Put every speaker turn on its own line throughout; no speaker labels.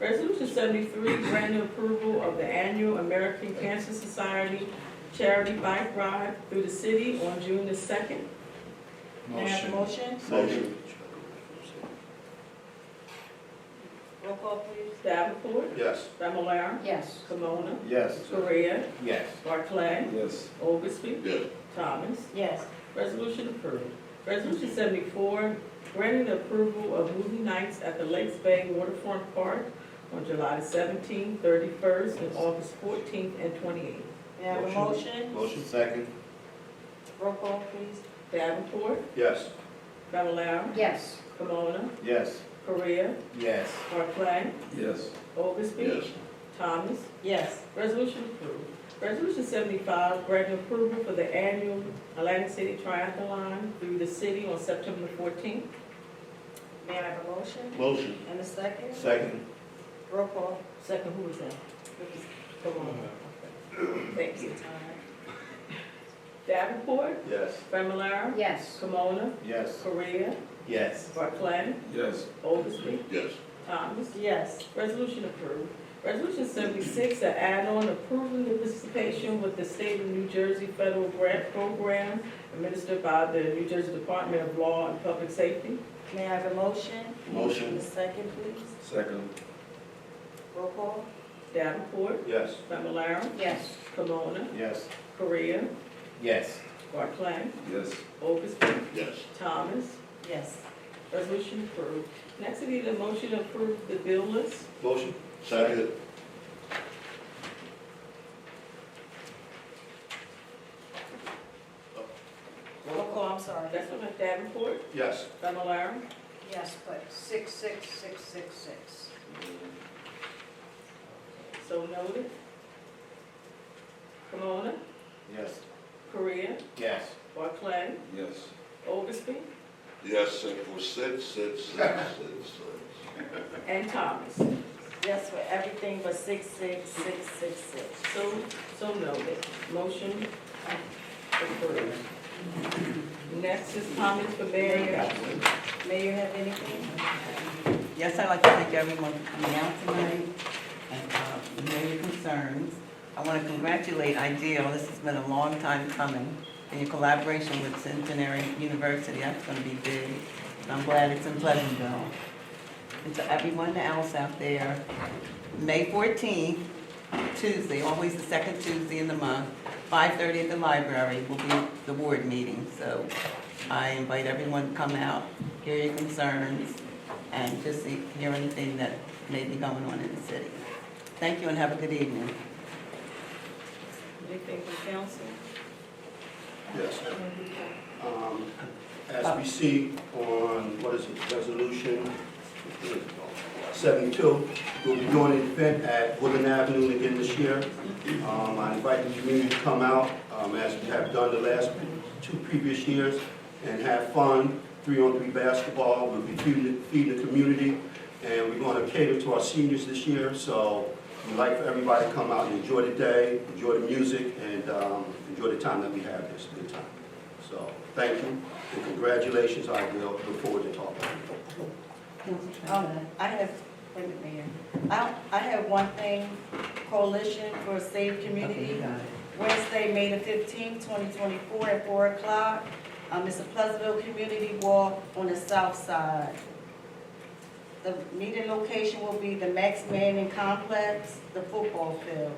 Resolution seventy-three, granting approval of the annual American Cancer Society charity bike ride through the city on June the second. May I have a motion?
Motion.
Roll call please. Davenport,
Yes.
Familar,
Yes.
Kimona,
Yes.
Korea,
Yes.
Barclay,
Yes.
Oglesby,
Yes.
Thomas.
Yes.
Resolution approved. Resolution seventy-four, granting the approval of movie nights at the Lakes Bay Waterfront Park on July seventeenth, thirty-first, and August fourteenth and twenty-eighth.
May I have a motion?
Motion second.
Roll call, please.
Davenport,
Yes.
Fablelaro,
Yes.
Camona,
Yes.
Korea,
Yes.
Barclay,
Yes.
Oglesby. Thomas.
Yes.
Resolution approved. Resolution seventy-five, granting approval for the annual Atlantic City Triathlon through the city on September fourteenth.
May I have a motion?
Motion.
And a second?
Second.
Roll call.
Second, who was that? Camona.
Uh-huh.
Thank you. Davenport,
Yes.
Familar,
Yes.
Kimona,
Yes.
Korea,
Yes.
Barclay,
Yes.
Oglesby,
Yes.
Thomas.
Yes.
Resolution approved. Resolution seventy-six, an add-on approving the participation with the State of New Jersey Federal Grant Program administered by the New Jersey Department of Law and Public Safety.
May I have a motion?
Motion.
And a second, please.
Second.
Roll call.
Davenport,
Yes.
Familar,
Yes.
Kimona,
Yes.
Korea,
Yes.
Barclay,
Yes.
Oglesby,
Yes.
Thomas.
Yes.
Resolution approved. Next, we need a motion to approve the bill list.
Motion. Second.
Roll call, I'm sorry.
That's from Davenport,
Yes.
Familar,
Yes, but six, six, six, six, six.
So noted. Kimona,
Yes.
Korea,
Yes.
Barclay,
Yes.
Oglesby,
Yes, six four six six six six six.
and Thomas.
Yes, for everything but six, six, six, six, six.
So, so noted. Motion uh, approved. Next is comments for Mayor and Council.
Mayor, have anything?
Yes, I'd like to thank everyone for coming out tonight and uh, hearing your concerns. I want to congratulate IDEAL, this has been a long time coming, and your collaboration with Centenary University, that's going to be big. And I'm glad it's in Pleasantville. And to everyone else out there, May 14th, Tuesday, always the second Tuesday in the month, 5:30 at the library will be the board meeting. So I invite everyone to come out, hear your concerns, and just see- hear anything that may be going on in the city. Thank you and have a good evening.
Anything from council?
Yes. Um, As we see on, what is it, resolution seventy-two, we'll be doing an event at Woodland Avenue again this year. Um, I invite the community to come out, um, as we have done the last two previous years, and have fun, three-on-three basketball, we'll be feeding, feeding the community, and we're gonna cater to our seniors this year, so we'd like for everybody to come out and enjoy the day, enjoy the music, and, um, enjoy the time that we have, it's a good time. So, thank you, and congratulations, I will look forward to talking to you.
Um, I have, wait a minute, Mayor. I, I have one thing, Coalition for a Safe
Okay, you
Community,
got it.
Wednesday, May the fifteenth, twenty twenty-four, at four o'clock. Um, it's a Pleasantville Community Walk on the south side. The meeting location will be the Max Manning Complex, the football field,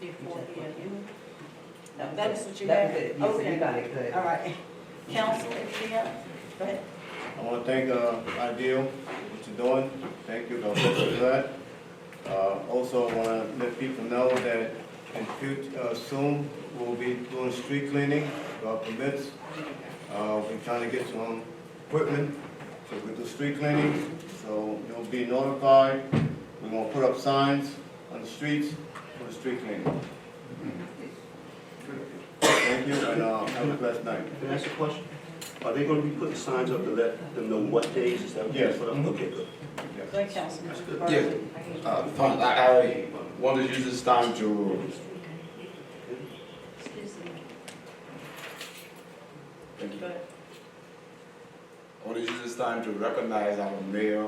before the end. No, That is what you
That
have?
was it. You said
Okay.
You got it, good.
All right. Council, if you have, go ahead.
I want to thank uh, Ideal for what you're doing. Thank you, Dr. for that. Uh, Also, I want to let people know that in future, soon, we'll be doing street cleaning, our permits. Uh, We're trying to get some equipment to we do street cleaning, so you'll be notified. We're going to put up signs on the streets for the street cleaning. Thank you, and uh, have a blessed night.
Can I ask a question? Are they gonna be putting signs up to let them know what days is that? what they're
Yes.
putting up? Okay, good.
Go ahead, Councilman.
That's good.
Yeah. Uh, fine, I, I
Mm-hmm.
want to use this time to, thank you.
Go ahead.
I want to use this time to recognize our mayor